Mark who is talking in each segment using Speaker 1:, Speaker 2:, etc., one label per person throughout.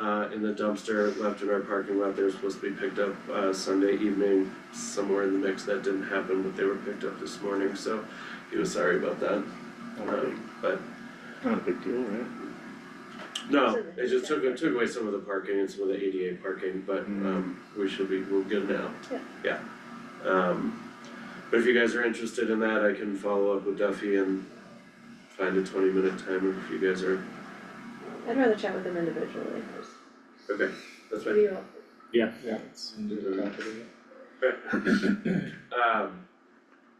Speaker 1: uh in the dumpster left in our parking lot, they were supposed to be picked up uh Sunday evening. Somewhere in the mix that didn't happen, but they were picked up this morning, so he was sorry about that.
Speaker 2: Not a big-
Speaker 1: Um, But
Speaker 2: Not a big deal, right?
Speaker 1: no, it just took it took away some of the parking and some of the ADA parking, but um we should be, we're good now.
Speaker 3: Yeah.
Speaker 1: Yeah. Um but if you guys are interested in that, I can follow up with Duffy and find a twenty minute timer if you guys are,
Speaker 3: I'd rather chat with them individually first.
Speaker 1: okay, that's fine.
Speaker 3: What do you want?
Speaker 4: Yeah. it's in the top of it.
Speaker 1: Um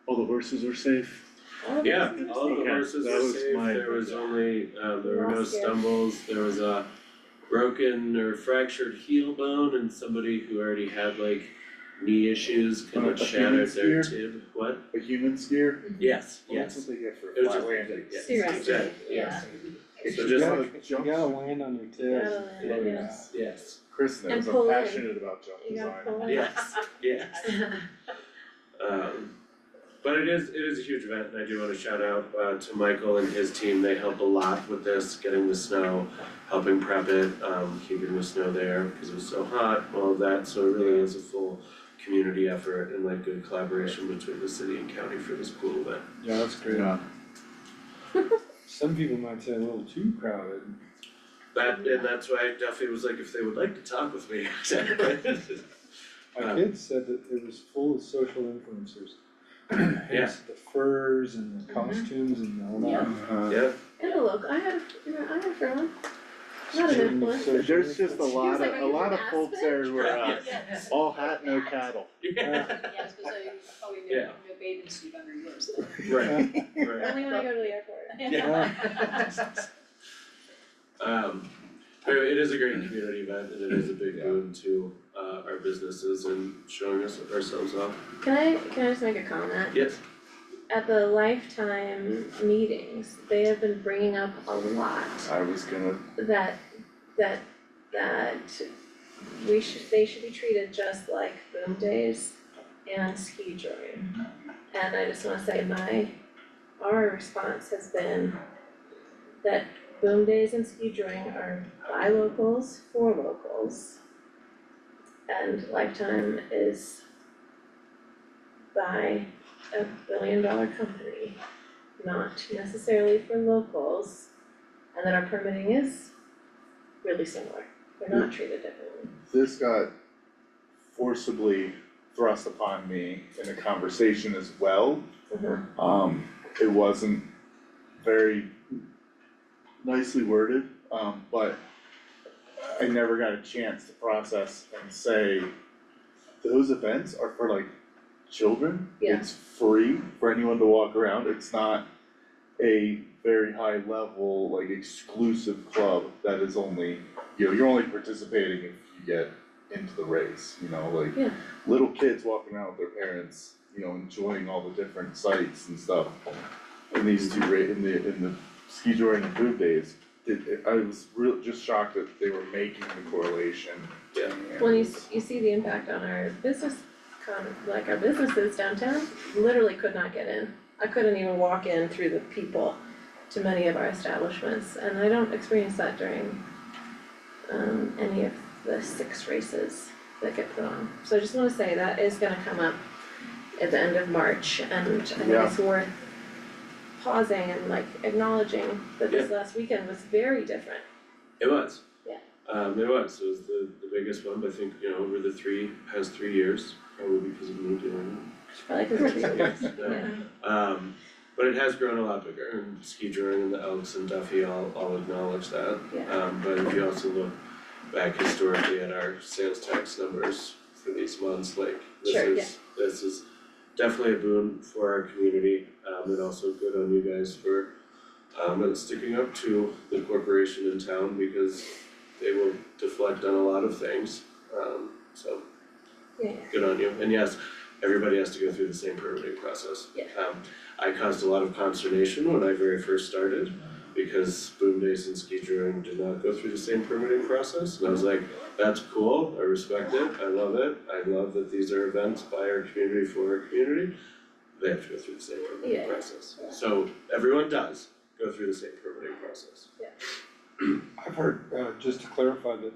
Speaker 2: All the horses are safe.
Speaker 3: All of
Speaker 1: Yeah,
Speaker 3: us
Speaker 1: all of the
Speaker 2: Yeah,
Speaker 1: horses
Speaker 2: that
Speaker 1: were
Speaker 2: was
Speaker 1: safe,
Speaker 2: my-
Speaker 1: there was only, uh, there were no
Speaker 3: Lost it.
Speaker 1: stumbles, there was a broken or fractured heel bone and somebody who already had like knee issues kind
Speaker 2: Like
Speaker 1: of
Speaker 2: a
Speaker 1: shattered
Speaker 2: human's
Speaker 1: their
Speaker 2: spear?
Speaker 1: tib, what?
Speaker 2: A human skier?
Speaker 1: Yes,
Speaker 2: Well, That's what they get for
Speaker 1: It was
Speaker 2: flat
Speaker 1: just-
Speaker 2: landing.
Speaker 1: yes,
Speaker 3: Seriously,
Speaker 1: exactly, yes,
Speaker 2: If
Speaker 1: So
Speaker 2: you
Speaker 1: just
Speaker 2: gotta
Speaker 4: You
Speaker 2: jump-
Speaker 4: gotta land on your tail. Oh,
Speaker 3: Yeah,
Speaker 1: Yeah.
Speaker 3: yes.
Speaker 1: yes,
Speaker 2: Chris
Speaker 3: And
Speaker 2: knows I'm
Speaker 3: pull in.
Speaker 2: passionate about jump
Speaker 3: You
Speaker 2: design.
Speaker 3: gotta pull in.
Speaker 1: yes, yes. Um, but it is, it is a huge event and I do wanna shout out uh to Michael and his team, they help a lot with this, getting the snow, helping prep it, um keeping the snow there because it was so hot, all of that, so it really is a full community effort and like good collaboration between the city and county for this cool event.
Speaker 4: Yeah, that's great.
Speaker 2: Yeah.
Speaker 4: Some people might say a little too crowded.
Speaker 1: That, and that's why Duffy was like, if they would like to talk with me,
Speaker 4: My
Speaker 1: Uh,
Speaker 4: kids said that it was full of social influencers.
Speaker 1: Yeah.
Speaker 4: Hence The furs and the costumes and all that.
Speaker 2: Uh,
Speaker 1: yeah,
Speaker 3: Good look, I had, you know, I had a friend. Not an
Speaker 4: Social-
Speaker 3: influencer.
Speaker 2: There's just a lot of,
Speaker 3: like, "Are
Speaker 2: a
Speaker 3: you
Speaker 2: lot
Speaker 3: from
Speaker 2: of folks there who are uh,
Speaker 5: Yes.
Speaker 2: all hat, no cattle.
Speaker 1: yeah,
Speaker 5: Yeah, it's because I, oh, you
Speaker 1: Yeah.
Speaker 5: didn't have a bathing suit under yours.
Speaker 1: right, right.
Speaker 3: Only when I go to the airport.
Speaker 1: Um, but it is a great community event and it is a big boon to uh our businesses and showing us ourselves off.
Speaker 3: Can I, can I just make a comment?
Speaker 1: Yes,
Speaker 3: At the lifetime meetings, they have been bringing up a lot
Speaker 2: I was gonna,
Speaker 3: that, that, that we should, they should be treated just like boom days and ski touring. And I just wanna say my, our response has been that boom days and ski touring are by locals, for locals. And Lifetime is by a billion dollar company, not necessarily for locals. And then our permitting is really similar, we're not treated differently.
Speaker 2: this got forcibly thrust upon me in a conversation as well. Um, it wasn't very nicely worded, um, but I never got a chance to process and say, those events are for like children.
Speaker 3: Yeah.
Speaker 2: It's free for anyone to walk around, it's not a very high level, like exclusive club that is only, you know, you're only participating if you get into the race, you know, like
Speaker 3: Yeah.
Speaker 2: little kids walking around with their parents, you know, enjoying all the different sights and stuff. In these two, ra- in the, in the ski touring and boom days, it, I was real, just shocked that they were making the correlation.
Speaker 1: Yeah.
Speaker 2: And
Speaker 3: When you, s- you see the impact on our business, con- like our businesses downtown, literally could not get in. I couldn't even walk in through the people to many of our establishments, and I don't experience that during um any of the six races that get put on. So I just wanna say that is gonna come up at the end of March, and I think
Speaker 2: Yeah.
Speaker 3: it's worth pausing and like acknowledging that this last weekend was very different.
Speaker 1: it was.
Speaker 3: Yeah.
Speaker 1: Um, it was, it was the the biggest one, but I think, you know, over the three, past three years, probably because of me doing
Speaker 3: Probably 'cause it's
Speaker 1: it. Yes, no.
Speaker 3: yeah.
Speaker 1: Um, but it has grown a lot bigger, and Ski Drawing and the Elks and Duffy all, all acknowledge that.
Speaker 3: Yeah.
Speaker 1: Um, but if you also look back historically at our sales tax numbers for these months, like, this
Speaker 3: Sure,
Speaker 1: is, this is definitely a boon for our community, um, and also good on you guys for um, and sticking up to the corporation in town, because they will deflect on a lot of things, um, so
Speaker 3: Yeah,
Speaker 1: good on you, and yes, everybody has to go through the same permitting process.
Speaker 3: Yeah.
Speaker 1: Um, I caused a lot of consternation when I very first started, because Boom Days and Ski Touring did not go through the same permitting process, and I was like, that's cool, I respect it, I love it, I love that these are events by our community for our community. They have to go through the same
Speaker 3: Yeah.
Speaker 1: permitting process,
Speaker 3: Yeah.
Speaker 1: so everyone does go through the same permitting process.
Speaker 4: I've heard, uh, just to clarify that